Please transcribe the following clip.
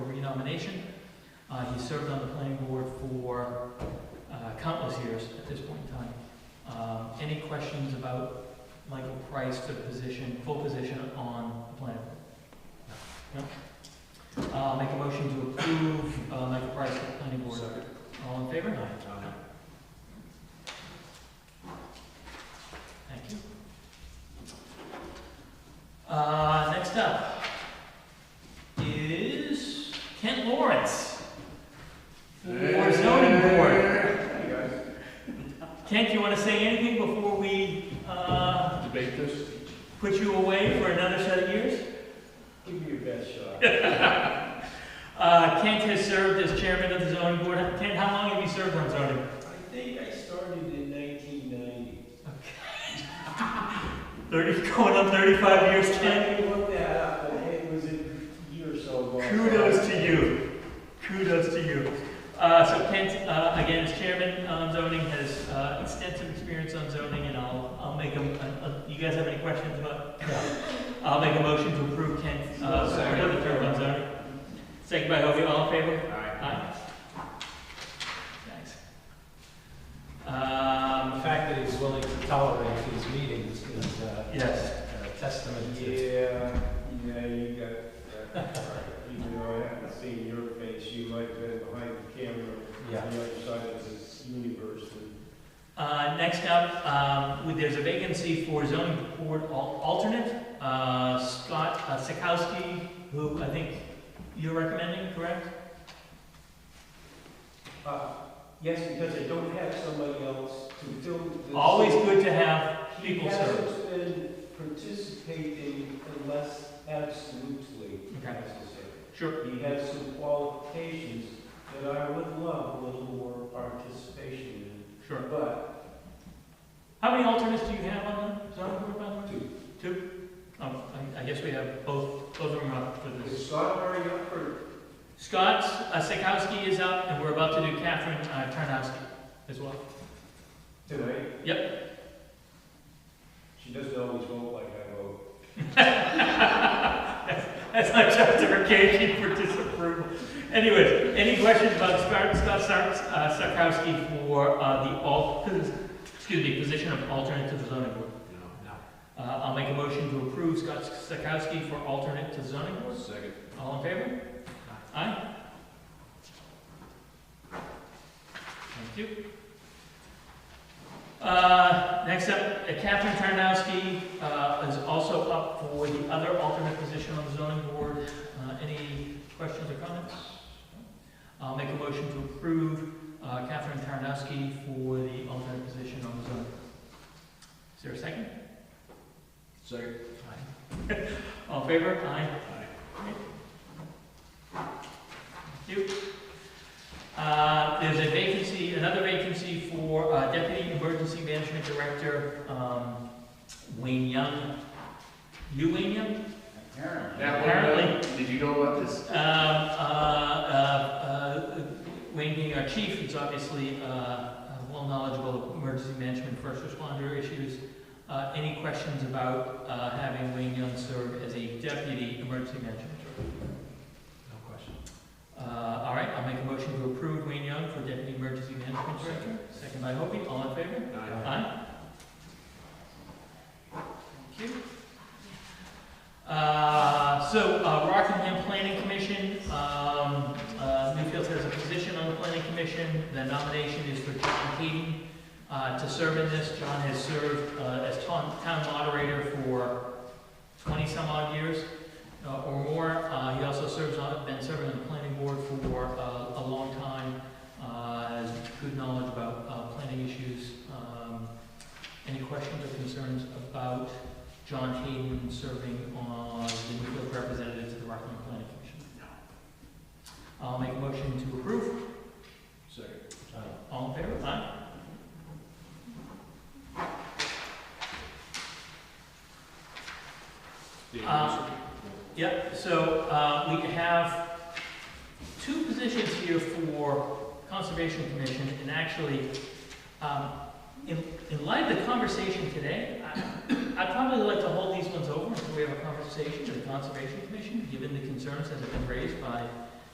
nomination. Uh, He served on the planning board for uh, countless years at this point in time. Um, Any questions about Michael Price for the position, full position on the planning board? No? Uh, Make a motion to approve uh, Michael Price for the planning board. Second. All in favor? Aye. Aye. Thank you. Uh, next up is Kent Lawrence. For zoning board. Kent, you wanna say anything before we, uh, Debate this? put you away for another set of years? Give me your best shot. Uh, Kent has served as chairman of the zoning board. Kent, how long have you served on zoning? I think I started in nineteen ninety. Thirty, going on thirty-five years, Kent? I looked that up, but it was a year or so ago. Kudos to you. Kudos to you. Uh, so Kent, uh, again, as chairman on zoning, has, uh, extensive experience on zoning, and I'll, I'll make a, a- a- you guys have any questions about? I'll make a motion to approve Kent, uh, for another term on zoning. Second by Hovey, all in favor? Aye. Thanks. The Um, fact that he's willing to tolerate these meetings is uh, yes, a testament to. Yeah, yeah, you got that right. Even though I haven't seen your face, you might have been behind the camera Yeah. on the other side of this universe. Uh, Next up, um, we- there's a vacancy for zoning board al- alternate, Uh, Scott uh, Sikowski, who I think you're recommending, correct? Uh, Yes, because I don't have somebody else to fill this. Always good to have people He serve. hasn't been participating unless absolutely Okay. necessary. Sure. He has some qualifications that I would love a little more participation in, Sure. but How many alternates do you have on the zoning board, by the way? Two. Two? Oh, I I guess we have both, both of them up for this. it's not very up for, Scott uh, Sikowski is up, and we're about to do Catherine uh, Tarnowski as well. tonight. Yep. She doesn't always vote like I vote. That's not justification for disapproval. Anyways, any questions about Scott, Scott Sar- uh, Sarkowski for, uh, the al, excuse me, position of alternate to the zoning board? Uh, I'll make a motion to approve Scott Sarkowski for alternate to the zoning board. Second. All in favor? Aye. Thank you. Uh, next up, uh, Catherine Tarnowski, uh, is also up for the other alternate position on the zoning board. Uh, any questions or comments? I'll make a motion to approve, uh, Catherine Tarnowski for the alternate position on the zoning. board. Is there a second? Second. Aye. All in favor? Aye. Thank you. Uh, There's a vacancy, another vacancy for uh, Deputy Emergency Management Director, um, Wayne Young. You, Wayne Young? That one, Apparently. uh, did you know about this? Um, uh, uh, uh, Wayne being our chief, he's obviously uh, uh, well knowledgeable of emergency management, first responder issues. Uh, Any questions about uh, having Wayne Young serve as a deputy emergency management director? No question. Uh, All right, I'll make a motion to approve Wayne Young for deputy emergency management director. Second by Hobie, all in favor? Aye. Thank you. Uh, So uh, Rockingham Planning Commission, um, uh, Newfields has a position on the planning commission. The nomination is for John Keating uh, to serve in this. John has served uh, as town town moderator for 20-some odd years uh, or more. Uh, He also serves on, been serving on the planning board for uh, a long time uh, has good knowledge about uh, planning issues. Um, Any questions or concerns about John Hayden serving on the Newfield representative to the Rockland Planning Commission? No. I'll make a motion to approve. Second. Aye. All in favor? Aye. Uh, Yep, so uh, we have two positions here for Conservation Commission, and actually, um, in in light of the conversation today, I- I'd probably like to hold these ones over until we have a conversation with the Conservation Commission, given the concerns that have been raised by